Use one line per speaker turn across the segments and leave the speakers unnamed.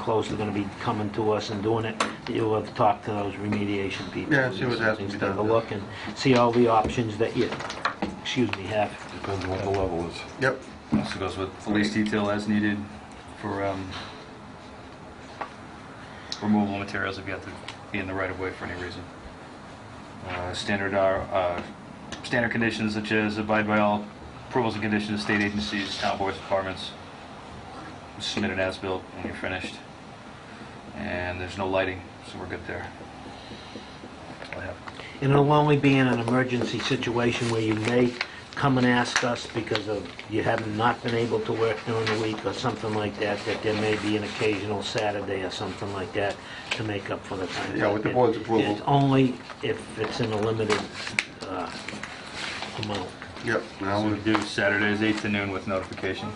close, they're gonna be coming to us and doing it, you'll have to talk to those remediation people.
Yeah, see what has to be
Take a
done.
look and see all the options that you, excuse me, have.
Depends on what the level is.
Yep,
Also goes with police detail as needed for um, removal of materials if you have to be in the right of way for any reason. Uh, Standard are, uh, standard conditions such as abide by all approvals and conditions of state agencies, town boards, departments. Submit an as-built when you're finished. And there's no lighting, so we're good there. That's all I have.
And it'll only be in an emergency situation where you may come and ask us because of, you have not been able to work during the week or something like that, that there may be an occasional Saturday or something like that to make up for the time.
Yeah, with the board's approval.
It's only if it's in a limited uh, amount,
yep. Now
So we
we-
do Saturdays 8 to noon with notification.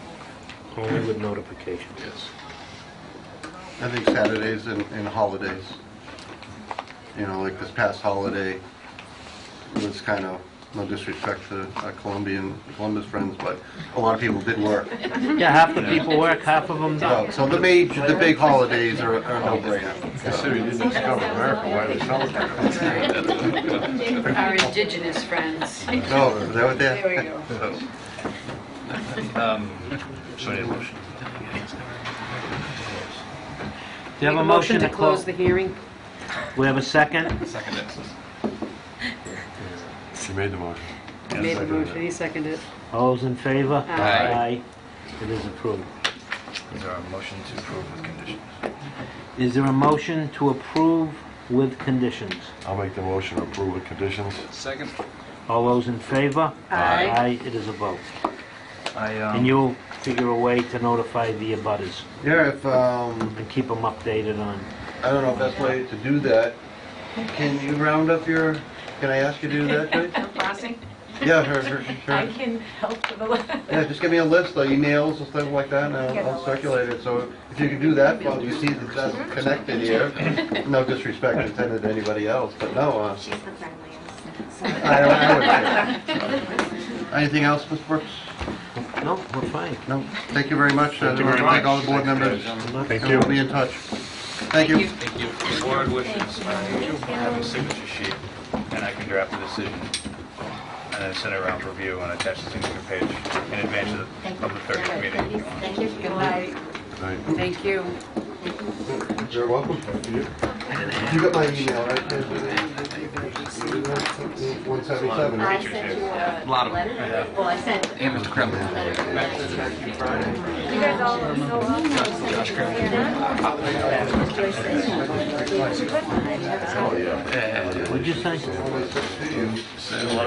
only with notification. Yes.
I think Saturdays and, and holidays. You know, like this past holiday was kind of, no disrespect to our Colombian, Columbus friends, but a lot of people did work.
Yeah, half the people work, half of them
So
don't.
so the major, the big holidays are are no
Considering
brainer.
you didn't discover America, why they celebrate it?
Our indigenous friends.
No, is that what
There we
that?
go.
Um, So I need a motion.
Do you have a motion to close?
the hearing?
We have a second?
Second
She made the motion.
Made the motion, he seconded it.
All those in favor?
Aye.
Aye. It is approved.
Is there a motion to approve with conditions?
Is there a motion to approve with conditions?
I'll make the motion, approve with conditions.
Second.
All those in favor?
Aye.
Aye, it is a vote.
I,
And
um,
you'll figure a way to notify the abutters
Yeah, if, um,
and keep them updated on...
I don't know, if best way to do that, can you round up your, can I ask you to do that, please?
Crossing?
Yeah, her, her,
I
her.
can help with the...
Yeah, just give me a list, like emails and stuff like that, and I'll- I'll circulate it. So if you can do that, well, you see that that's connected here. No disrespect intended to anybody else, but no, uh,
She's the friendliest.
I don't, I would say. Anything else, Ms. Brooks?
No, we're fine.
No, thank you very much.
Thank you very much.
Thank all the board members.
Thank
And
you.
we'll be in touch. Thank you.
Thank you. Board wishes, I have a signature sheet, and I can draft a decision, and then send it around for review and attach the signature page in advance of the public thirtieth meeting.
Thank you. Good night.
Thank
Thank you.
You're welcome.
you.
You got my email, right? One seventy-seven,
I sent you a
Lot of-
letter. Well, I sent a
Amos Kremlin.
letter. You guys all
um,
are so welcome. Josh
Oh, yeah.
Would you say?
And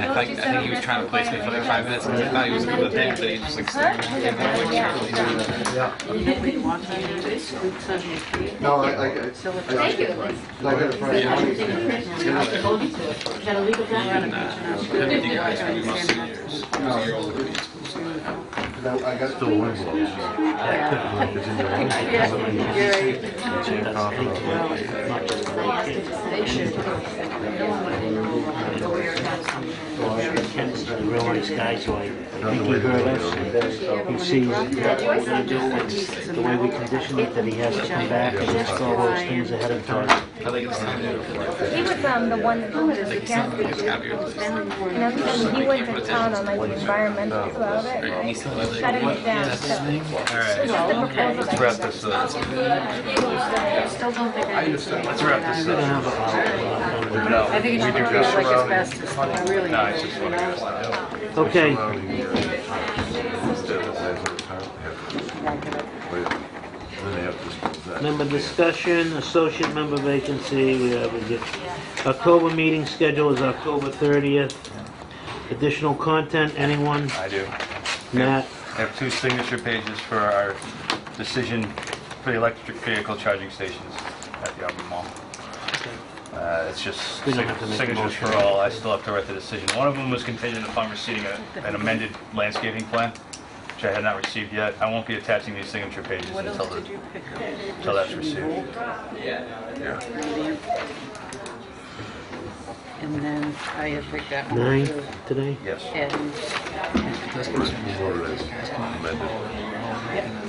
I think, I think he was trying to place me for like five minutes, and I thought he was doing the thing, but he just like stared
No, I, I, I-
Thank you.
I got it from
Is that a legal document?
No, I got it from-
It's in your own.
Ken's a real nice guy, so I think he heard us. and that He sees the way we condition it, that he has to come back and list all those things ahead of time.
He was um, the one who was against the use and everything. He went to town on like the environmental about it, like, shutting it down. So
All right, let's wrap this up. Let's wrap this up.
I think it should be like as fast as, I really.
No, it's just what it is.
Okay,
Then they have to dispose that.
member discussion, associate member vacancy, we have a good- October meeting schedule is October 30th. Additional content, anyone?
I do.
Matt?
I have two signature pages for our decision for the electric vehicle charging stations at the Auburn Mall. Uh, It's just
We don't have to make a
signatures for
motion.
all, I still have to write the decision. One of them was contingent upon receiving a- an amended landscaping plan, which I had not received yet. I won't be attaching these signature pages until the- until that's received.
And then I had picked that one.
Nine
too.
today?
Yes.
And
Whoever it is, amended.
yeah,